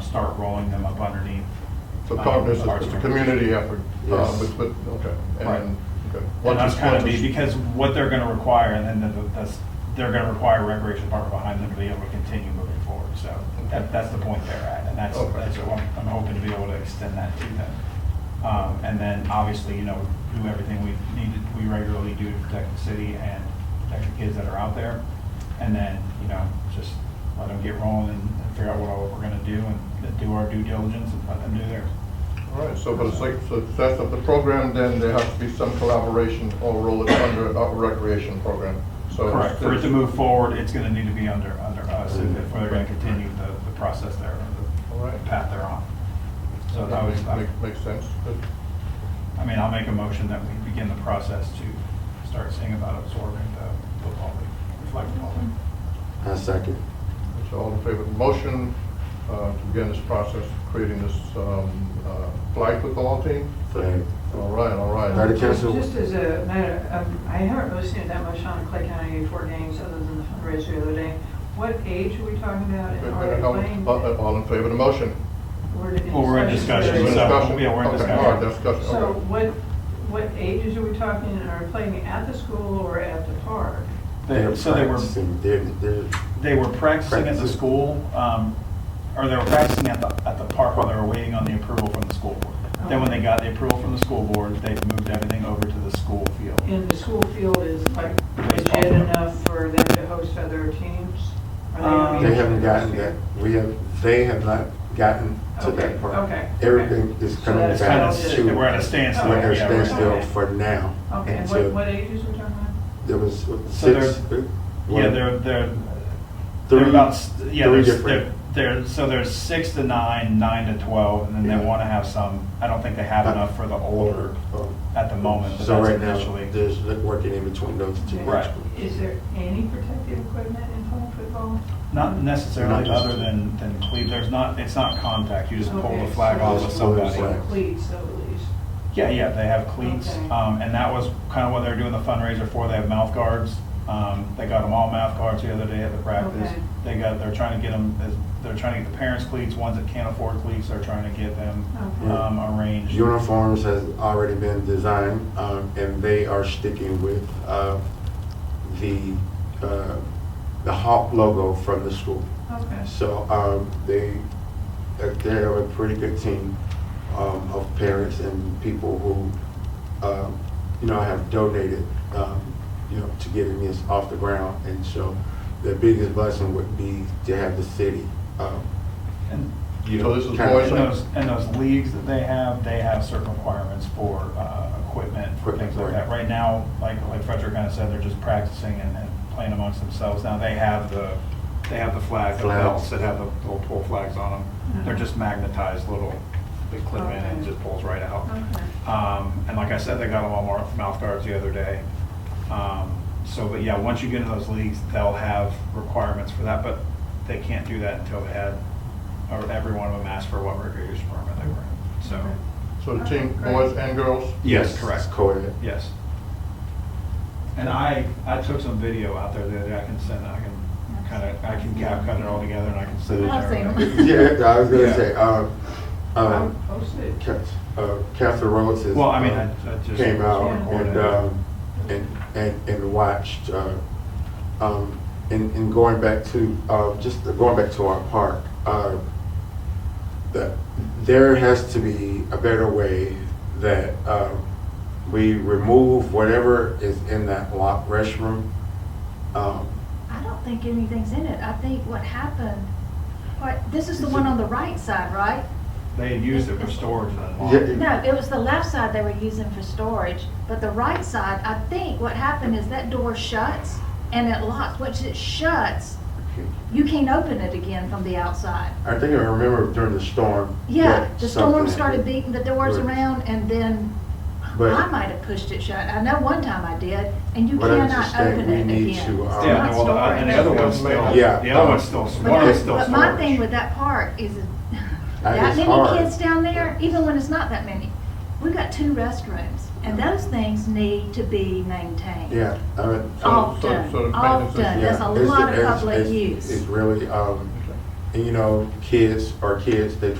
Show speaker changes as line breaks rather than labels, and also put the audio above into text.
start rolling them up underneath.
So
um,
Cogniz
our
is a
stores.
community effort, uh,
Yes.
but, but, okay. and-
Right.
okay.
And
What
that's
is-
kind of
what is-
be, because what they're gonna require, and then the- the- that's, they're gonna require a recreation department behind them to be able to continue moving forward, so that, that's the point they're at, and that's,
Okay.
that's what I'm, I'm hoping to be able to extend that to them. Um, and then, obviously, you know, do everything we need, to- we regularly do to protect the city and protect the kids that are out there, and then, you know, just let them get rolling and figure out what all we're gonna do, and do our due diligence and let them do theirs.
All right, so for the sake- success of the program, then there has to be some collaboration or roll it under a recreation program. So
Correct, for it to
it's-
move forward, it's gonna need to be under, under us, and if we're gonna continue the, the process there,
All
the
right.
path they're on. So I would,
Make-
I
make- Makes sense. Good.
I mean, I'll make a motion that we begin the process to start seeing about absorbing the football league, flag football league.
I second.
So all in favor of the motion uh, to begin this process, creating this um, uh, flag football team?
Third.
All right, all right.
Ready, Council? So-
Just as a matter, of- I haven't really seen it that much on Clay County A4 games other than the fundraiser the other day. What age are we talking about
Wait
and
a
are
minute,
they
All
playing?
uh, all in favor of the motion?
Well, we're in
We're in
discussion, so, yeah, we're in
Okay,
discussion.
All right, discussion,
So
okay.
what, what ages are we talking and are playing at the school or at the park?
They- So they were,
practicing. They're, they're,
they were practicing at the
Practicing.
school, um, or they were practicing at the, at the park while they were waiting on the approval from the school board. Then when they got the approval from the school board, they moved everything over to the school field.
And the school field is like
Baseball.
legit enough for them to host other teams? Are gonna
Um,
be-
they haven't gotten that, we have, they have not gotten to
Okay,
that part.
okay, okay.
Everything is
So
coming back
that's
to.
kind of-
we're at a standstill,
We're at a
yeah, right.
standstill
Okay.
for now.
Okay, and
until
what, what ages are we talking about?
There was what,
So they're-
six. uh,
Yeah,
one-
they're, they're,
Three-
they're about, s- yeah,
three
there's,
different-
there- there, so there's six to nine, nine to 12, and then
Yeah.
they want to have some, I don't think they have enough for the older
Oh.
at the moment, but
So
that's
right now,
initially.
there's working in between those two.
Right.
Is there any protective equipment in flag football?
Not necessarily
Not just-
other than, than cleat, there's not, it's not contact, you just pull
Okay,
the flag
so
off
just
of
pull the
somebody.
flag.
Cleats, though, at least.
Yeah, yeah, they have cleats,
Okay.
um, and that was kind of what they're doing the fundraiser for, they have mouth guards. Um, they got them all mouth guards the other day at the practice.
Okay.
They got, they're trying to get them, they're trying to get the parents cleats, ones that can't afford cleats, they're trying to get them,
Okay.
um, arranged.
Uniforms has already been designed, um, and they are sticking with, uh, the, uh, the Hawk logo from the school.
Okay.
So, um, they, uh, they have a pretty good team, um, of parents and people who, um, you know, have donated, um, you know, to getting this off the ground. And so the biggest blessing would be to have the city, um,
And
you
So
know.
this is
kind of-
boys
and those, and those leagues that they have, they have certain requirements for, uh, equipment, for things like that. Right now, like, like Frederick kind of said, they're just practicing and, and playing amongst themselves. Now, they have the, they have the flag, the
Flags.
belts that have the little pull flags on them. They're
Mhm.
just magnetized little, they clip in and it just pulls right out.
Okay.
Um, and like I said, they got them all mar- mouth guards the other day. Um, so, but yeah, once you get into those leagues, they'll have requirements for that, but they can't do that until they had, or every one of them asked for what recreation permit they were in, so.
So the team, boys and girls?
Yes,
It's
correct,
co-ed.
yes. And I, I took some video out there the other day, I can send, I can kind of, I can cap cut it all together and I can send it. to
I've seen 'em.
everybody.
Yeah, I was
Yeah.
gonna say, um,
I'll
um,
post it.
Ca- uh, Catherine Rhodes has.
Well, I mean, I,
uh,
I just.
Came out
Yeah.
and, um, and, and, and watched, uh, um, and, and going back to, uh, just going back to our park, uh, that there has to be a better way that, um, we remove whatever is in that locked restroom. Um,
I don't think anything's in it. I think what happened, what, this is the one on the right side, right?
They had used it for storage that
Yeah.
long.
No, it was the left side they were using for storage, but the right side, I think what happened is that door shuts and it locks. Once it shuts, you can't open it again from the outside.
I think I remember during the storm.
Yeah,
that
the storm
something-
started beating the doors
Right.
around and then
But-
I might have pushed it shut. I know one time I did, and you
But I
cannot
understand
open
we
it
need
again.
to, uh,
It's
Yeah,
not
well, the- and the other
storage.
one's still,
Yeah.
the other one's still,
But
one
my-
is still storage.
But my thing with that park is,
That
that
is
many
hard.
kids down there, even when it's not that many, we got two restrooms, and those things need to be maintained.
Yeah, I mean.
So- so-
Often,
so the maintenance is-
often,
yeah,
Oh, there's a
it's-
lot of
it's-
public
it's- It's
use.
really, um,
Okay.
and you know, kids are kids, they drink